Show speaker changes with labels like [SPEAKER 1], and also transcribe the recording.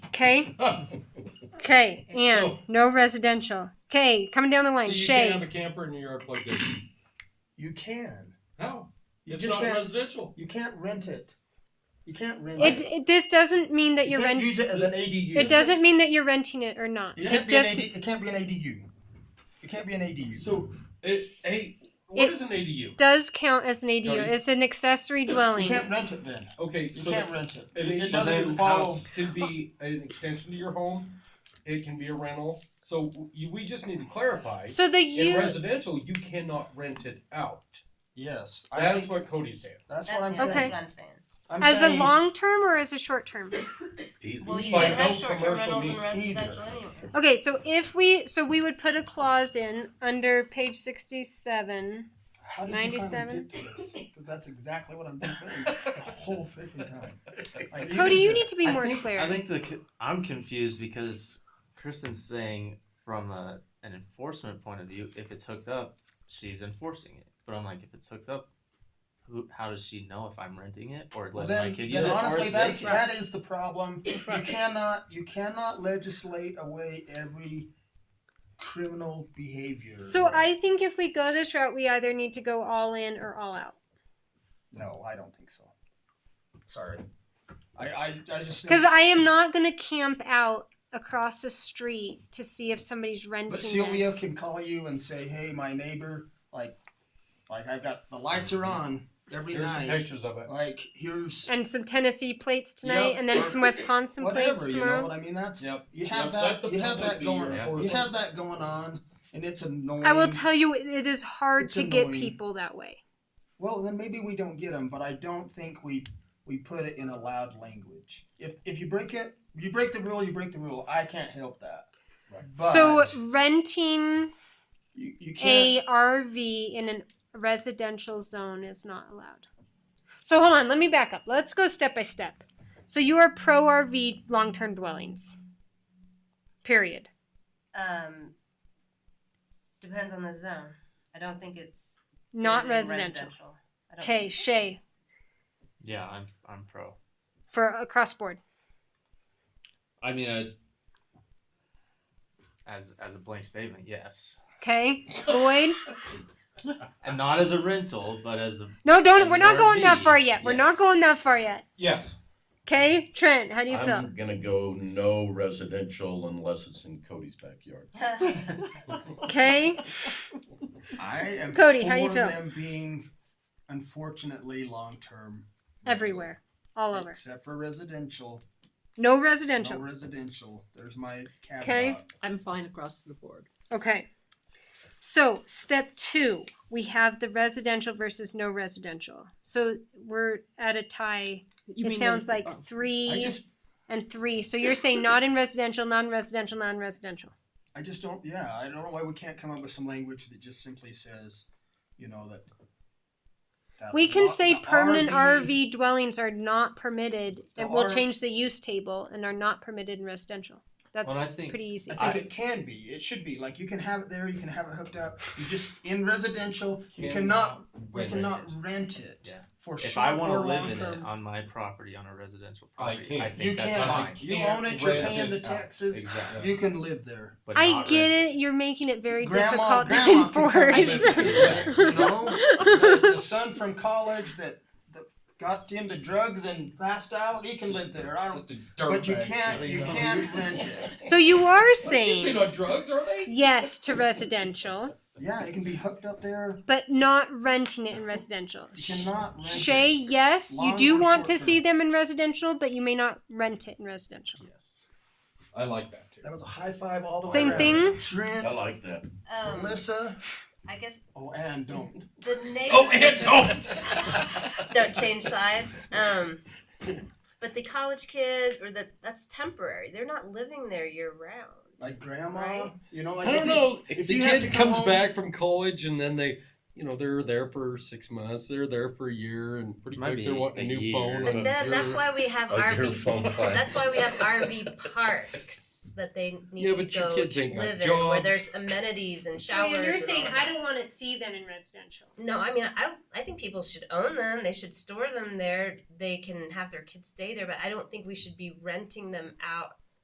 [SPEAKER 1] Okay. Okay. And
[SPEAKER 2] So-
[SPEAKER 1] no residential. Okay. Coming down the
[SPEAKER 2] So
[SPEAKER 1] line.
[SPEAKER 2] you
[SPEAKER 1] Shay.
[SPEAKER 2] can have a camper in Europe like this.
[SPEAKER 3] You can.
[SPEAKER 2] How?
[SPEAKER 3] You
[SPEAKER 2] It's
[SPEAKER 3] just
[SPEAKER 2] not
[SPEAKER 3] can't.
[SPEAKER 2] residential.
[SPEAKER 3] You can't rent it. You can't rent
[SPEAKER 1] It,
[SPEAKER 3] it.
[SPEAKER 1] it. This doesn't mean that
[SPEAKER 3] You
[SPEAKER 1] you're
[SPEAKER 3] can't
[SPEAKER 1] renting.
[SPEAKER 3] use it as an ADU.
[SPEAKER 1] It doesn't mean that you're renting it or not.
[SPEAKER 3] It
[SPEAKER 2] Yeah.
[SPEAKER 3] can't,
[SPEAKER 1] It
[SPEAKER 3] be an
[SPEAKER 1] just.
[SPEAKER 3] AD, it can't be an ADU. It can't be an ADU.
[SPEAKER 2] So, it, hey, what
[SPEAKER 1] It-
[SPEAKER 2] is an ADU?
[SPEAKER 1] Does count as an ADU.
[SPEAKER 2] No, you-
[SPEAKER 1] it's an accessory
[SPEAKER 3] you
[SPEAKER 1] dwelling.
[SPEAKER 3] can't rent it then.
[SPEAKER 2] Okay,
[SPEAKER 3] You
[SPEAKER 2] so
[SPEAKER 3] can't rent it.
[SPEAKER 2] an
[SPEAKER 3] It, it
[SPEAKER 2] ADU
[SPEAKER 3] doesn't
[SPEAKER 2] then
[SPEAKER 3] follow.
[SPEAKER 2] house Can be an extension to your home. It can be a rental. So you, we just need to clarify.
[SPEAKER 1] So the
[SPEAKER 2] in
[SPEAKER 1] you.
[SPEAKER 2] residential, you cannot rent it out.
[SPEAKER 3] Yes, I
[SPEAKER 2] That's
[SPEAKER 3] think
[SPEAKER 2] what Cody's saying.
[SPEAKER 3] that's
[SPEAKER 4] That-
[SPEAKER 3] what I'm
[SPEAKER 4] yeah,
[SPEAKER 3] saying.
[SPEAKER 1] Okay.
[SPEAKER 4] That's what I'm saying.
[SPEAKER 3] I'm
[SPEAKER 1] As a
[SPEAKER 3] saying
[SPEAKER 1] long term or as a short term?
[SPEAKER 4] Well, you
[SPEAKER 2] By
[SPEAKER 4] can have
[SPEAKER 2] no
[SPEAKER 4] short-term
[SPEAKER 2] commercial
[SPEAKER 4] rentals and
[SPEAKER 2] means
[SPEAKER 4] residential
[SPEAKER 3] either.
[SPEAKER 4] anyway.
[SPEAKER 1] Okay, so if we so we would put a clause in under page sixty seven.
[SPEAKER 3] How did
[SPEAKER 1] 97?
[SPEAKER 3] You finally get to this? 'Cause that's exactly what I've been saying the whole freaking time. Like,
[SPEAKER 1] Cody,
[SPEAKER 3] even
[SPEAKER 1] you
[SPEAKER 3] the-
[SPEAKER 1] need to be
[SPEAKER 5] I
[SPEAKER 1] more
[SPEAKER 5] think,
[SPEAKER 1] clear.
[SPEAKER 5] I think the co- I'm confused because Kristen's saying from a, an enforcement point of view, if it's hooked up, she's enforcing it. But I'm like, if it's hooked up, who, how does she know if I'm renting it or
[SPEAKER 3] Well,
[SPEAKER 5] letting
[SPEAKER 3] then,
[SPEAKER 5] my kid
[SPEAKER 3] then
[SPEAKER 5] use it? or
[SPEAKER 3] honestly,
[SPEAKER 5] it's
[SPEAKER 3] that's,
[SPEAKER 5] vacant?
[SPEAKER 3] that is the problem. You
[SPEAKER 1] Right.
[SPEAKER 3] cannot you cannot legislate away every criminal behavior.
[SPEAKER 1] so I think if we go this route, we either need to go all in or all out.
[SPEAKER 3] no, I don't think so. Sorry, I I, I just think-
[SPEAKER 1] Because I am not going to camp out across the street to see if somebody's renting.
[SPEAKER 3] But Sylvia
[SPEAKER 1] this.
[SPEAKER 3] can call you and say, "Hey, my neighbor, like, like I've got the lights are on every
[SPEAKER 2] Mm-hmm. Here's some
[SPEAKER 3] night.
[SPEAKER 2] pictures of it.
[SPEAKER 3] Like, here's
[SPEAKER 1] and some Tennessee plates tonight,
[SPEAKER 3] Yep.
[SPEAKER 1] and then some Wisconsin
[SPEAKER 3] whatever.
[SPEAKER 1] plates
[SPEAKER 3] You know
[SPEAKER 1] tomorrow.
[SPEAKER 3] what I mean? That's
[SPEAKER 2] Yep.
[SPEAKER 3] you have
[SPEAKER 2] Yep, let
[SPEAKER 3] that.
[SPEAKER 2] the
[SPEAKER 3] You have
[SPEAKER 2] public
[SPEAKER 3] that
[SPEAKER 2] be
[SPEAKER 3] going.
[SPEAKER 2] your
[SPEAKER 3] You
[SPEAKER 2] enforcement.
[SPEAKER 3] have that going on, and it's annoying.
[SPEAKER 1] I will tell you, it- it is hard
[SPEAKER 3] It's
[SPEAKER 1] to get
[SPEAKER 3] annoying.
[SPEAKER 1] people that way.
[SPEAKER 3] Well, then maybe we don't get them, but I don't think we we put it in a loud language. If if you break it, you break the rule. You break the rule. I can't help that. But
[SPEAKER 1] so renting
[SPEAKER 3] you, you can't.
[SPEAKER 1] a RV in a residential zone is not allowed. So hold on, let me back up. Let's go step by step. So you are pro RV long term dwellings. Period.
[SPEAKER 4] Um, depends on the zone. I don't think it's
[SPEAKER 1] Not
[SPEAKER 4] really
[SPEAKER 1] residential.
[SPEAKER 4] I don't
[SPEAKER 1] Okay,
[SPEAKER 4] think-
[SPEAKER 1] Shay,
[SPEAKER 5] Yeah, I'm I'm pro.
[SPEAKER 1] for uh, across board.
[SPEAKER 5] I mean, I, as as a blank statement, yes,
[SPEAKER 1] Okay, Boyd.
[SPEAKER 5] and not as a rental, but as a
[SPEAKER 1] No,
[SPEAKER 5] As
[SPEAKER 1] don't. We're
[SPEAKER 5] an
[SPEAKER 1] not going that
[SPEAKER 5] RV,
[SPEAKER 1] far yet. We're not
[SPEAKER 5] yes.
[SPEAKER 1] going that far yet.
[SPEAKER 2] Yes.
[SPEAKER 1] Okay, Trent, how do you feel?
[SPEAKER 6] I'm gonna go no residential unless it's in Cody's backyard.
[SPEAKER 1] Okay,
[SPEAKER 3] I am
[SPEAKER 1] Cody,
[SPEAKER 3] for
[SPEAKER 1] how you feel?
[SPEAKER 3] them being unfortunately long term
[SPEAKER 1] everywhere, all over.
[SPEAKER 3] except for residential.
[SPEAKER 1] No
[SPEAKER 3] No
[SPEAKER 1] residential.
[SPEAKER 3] residential. There's my caveat.
[SPEAKER 1] Okay.
[SPEAKER 7] I'm fine across the board.
[SPEAKER 1] Okay. So, step two, we have the residential versus no residential. So, we're at a tie.
[SPEAKER 7] You
[SPEAKER 1] it
[SPEAKER 7] mean
[SPEAKER 1] sounds
[SPEAKER 7] no-
[SPEAKER 1] like
[SPEAKER 7] oh.
[SPEAKER 3] I
[SPEAKER 1] three
[SPEAKER 3] just
[SPEAKER 1] and three. So, you're saying not in residential, non residential, non residential.
[SPEAKER 3] I just don't. Yeah, I don't know why we can't come up with some language that just simply says, you know, that. that
[SPEAKER 1] We can
[SPEAKER 3] lo-
[SPEAKER 1] say
[SPEAKER 3] the
[SPEAKER 1] permanent RV, dwellings are not permitted,
[SPEAKER 3] The
[SPEAKER 1] and we'll
[SPEAKER 3] R-
[SPEAKER 1] change the use table and are not permitted in residential. That's
[SPEAKER 5] Well, I think-
[SPEAKER 1] pretty easy.
[SPEAKER 3] I think it can be. It should be. Like you can have it there. You can have it hooked up. You just in residential. You cannot. We
[SPEAKER 5] uh, rent
[SPEAKER 3] cannot
[SPEAKER 5] it.
[SPEAKER 3] rent it.
[SPEAKER 5] Yeah.
[SPEAKER 3] For
[SPEAKER 5] If
[SPEAKER 3] short
[SPEAKER 5] I want to
[SPEAKER 3] or
[SPEAKER 5] live
[SPEAKER 3] long
[SPEAKER 5] in
[SPEAKER 3] term.
[SPEAKER 5] it on my property on a residential
[SPEAKER 2] I
[SPEAKER 5] property,
[SPEAKER 2] can't.
[SPEAKER 5] I, think
[SPEAKER 3] You
[SPEAKER 5] that's
[SPEAKER 3] can't.
[SPEAKER 5] fine.
[SPEAKER 3] You own it, you're
[SPEAKER 2] Rent
[SPEAKER 3] paying the
[SPEAKER 2] out.
[SPEAKER 3] taxes.
[SPEAKER 5] Exactly.
[SPEAKER 3] You can live there.
[SPEAKER 5] But
[SPEAKER 1] I
[SPEAKER 5] not
[SPEAKER 1] get
[SPEAKER 5] rented.
[SPEAKER 1] it. You're making it very
[SPEAKER 3] Grandma-
[SPEAKER 1] difficult
[SPEAKER 3] grandma can come
[SPEAKER 1] to
[SPEAKER 3] live
[SPEAKER 1] enforce.
[SPEAKER 3] with
[SPEAKER 2] you.
[SPEAKER 3] You know, the, the son from college that, that got into drugs and passed out, he can live there. I don't.
[SPEAKER 2] Just a dirt
[SPEAKER 3] But you
[SPEAKER 2] bag
[SPEAKER 3] can't.
[SPEAKER 2] sitting
[SPEAKER 3] You
[SPEAKER 2] on-
[SPEAKER 3] can't rent it.
[SPEAKER 1] so you are
[SPEAKER 2] My Kids ain't
[SPEAKER 1] saying
[SPEAKER 2] on drugs, are they?
[SPEAKER 1] yes to residential,
[SPEAKER 3] Yeah, it can be hooked up there.
[SPEAKER 1] but not renting it in residential.
[SPEAKER 3] You cannot rent
[SPEAKER 1] Shay,
[SPEAKER 3] it.
[SPEAKER 1] yes, you
[SPEAKER 3] Long
[SPEAKER 1] do
[SPEAKER 3] or
[SPEAKER 1] want to
[SPEAKER 3] short
[SPEAKER 1] see them in residential, but you may not rent it in residential.
[SPEAKER 5] Yes.
[SPEAKER 2] I like that too.
[SPEAKER 3] That was a high five all the way
[SPEAKER 1] Same
[SPEAKER 3] around.
[SPEAKER 1] thing.
[SPEAKER 3] Trent,
[SPEAKER 6] I like that.
[SPEAKER 4] Um,
[SPEAKER 3] Melissa.
[SPEAKER 4] I guess
[SPEAKER 3] Oh, and don't.
[SPEAKER 4] the name.
[SPEAKER 2] Oh, and don't.
[SPEAKER 4] don't change sides. Um, but the college kid or the that's temporary. They're not living there year round.
[SPEAKER 3] Like grandma.
[SPEAKER 4] Right.
[SPEAKER 3] You know, like
[SPEAKER 2] I
[SPEAKER 3] if
[SPEAKER 2] don't
[SPEAKER 3] you-
[SPEAKER 2] know.
[SPEAKER 3] if
[SPEAKER 2] If the
[SPEAKER 3] you have to
[SPEAKER 2] kid
[SPEAKER 3] come
[SPEAKER 2] comes
[SPEAKER 3] home-
[SPEAKER 2] back from college and then they, you know, they're there for six months, they're there for a year, and pretty
[SPEAKER 5] Might
[SPEAKER 2] quick
[SPEAKER 5] be
[SPEAKER 2] they're wanting a
[SPEAKER 5] a
[SPEAKER 2] new
[SPEAKER 5] year.
[SPEAKER 2] phone.
[SPEAKER 4] But
[SPEAKER 2] and a
[SPEAKER 4] then
[SPEAKER 2] year.
[SPEAKER 4] that's why we have
[SPEAKER 6] A
[SPEAKER 4] RV.
[SPEAKER 6] your phone plan.
[SPEAKER 4] That's why we have RV parks that they need
[SPEAKER 2] Yeah,
[SPEAKER 4] to
[SPEAKER 2] but your
[SPEAKER 4] go
[SPEAKER 2] kids
[SPEAKER 4] to
[SPEAKER 2] ain't got
[SPEAKER 4] live in, where
[SPEAKER 2] jobs.
[SPEAKER 4] there's amenities and showers. and all that.
[SPEAKER 1] don't want to see them in residential.
[SPEAKER 4] No, I mean, I I think people should own them. They should store them there. They can have their kids stay there, but I don't think we should be renting them out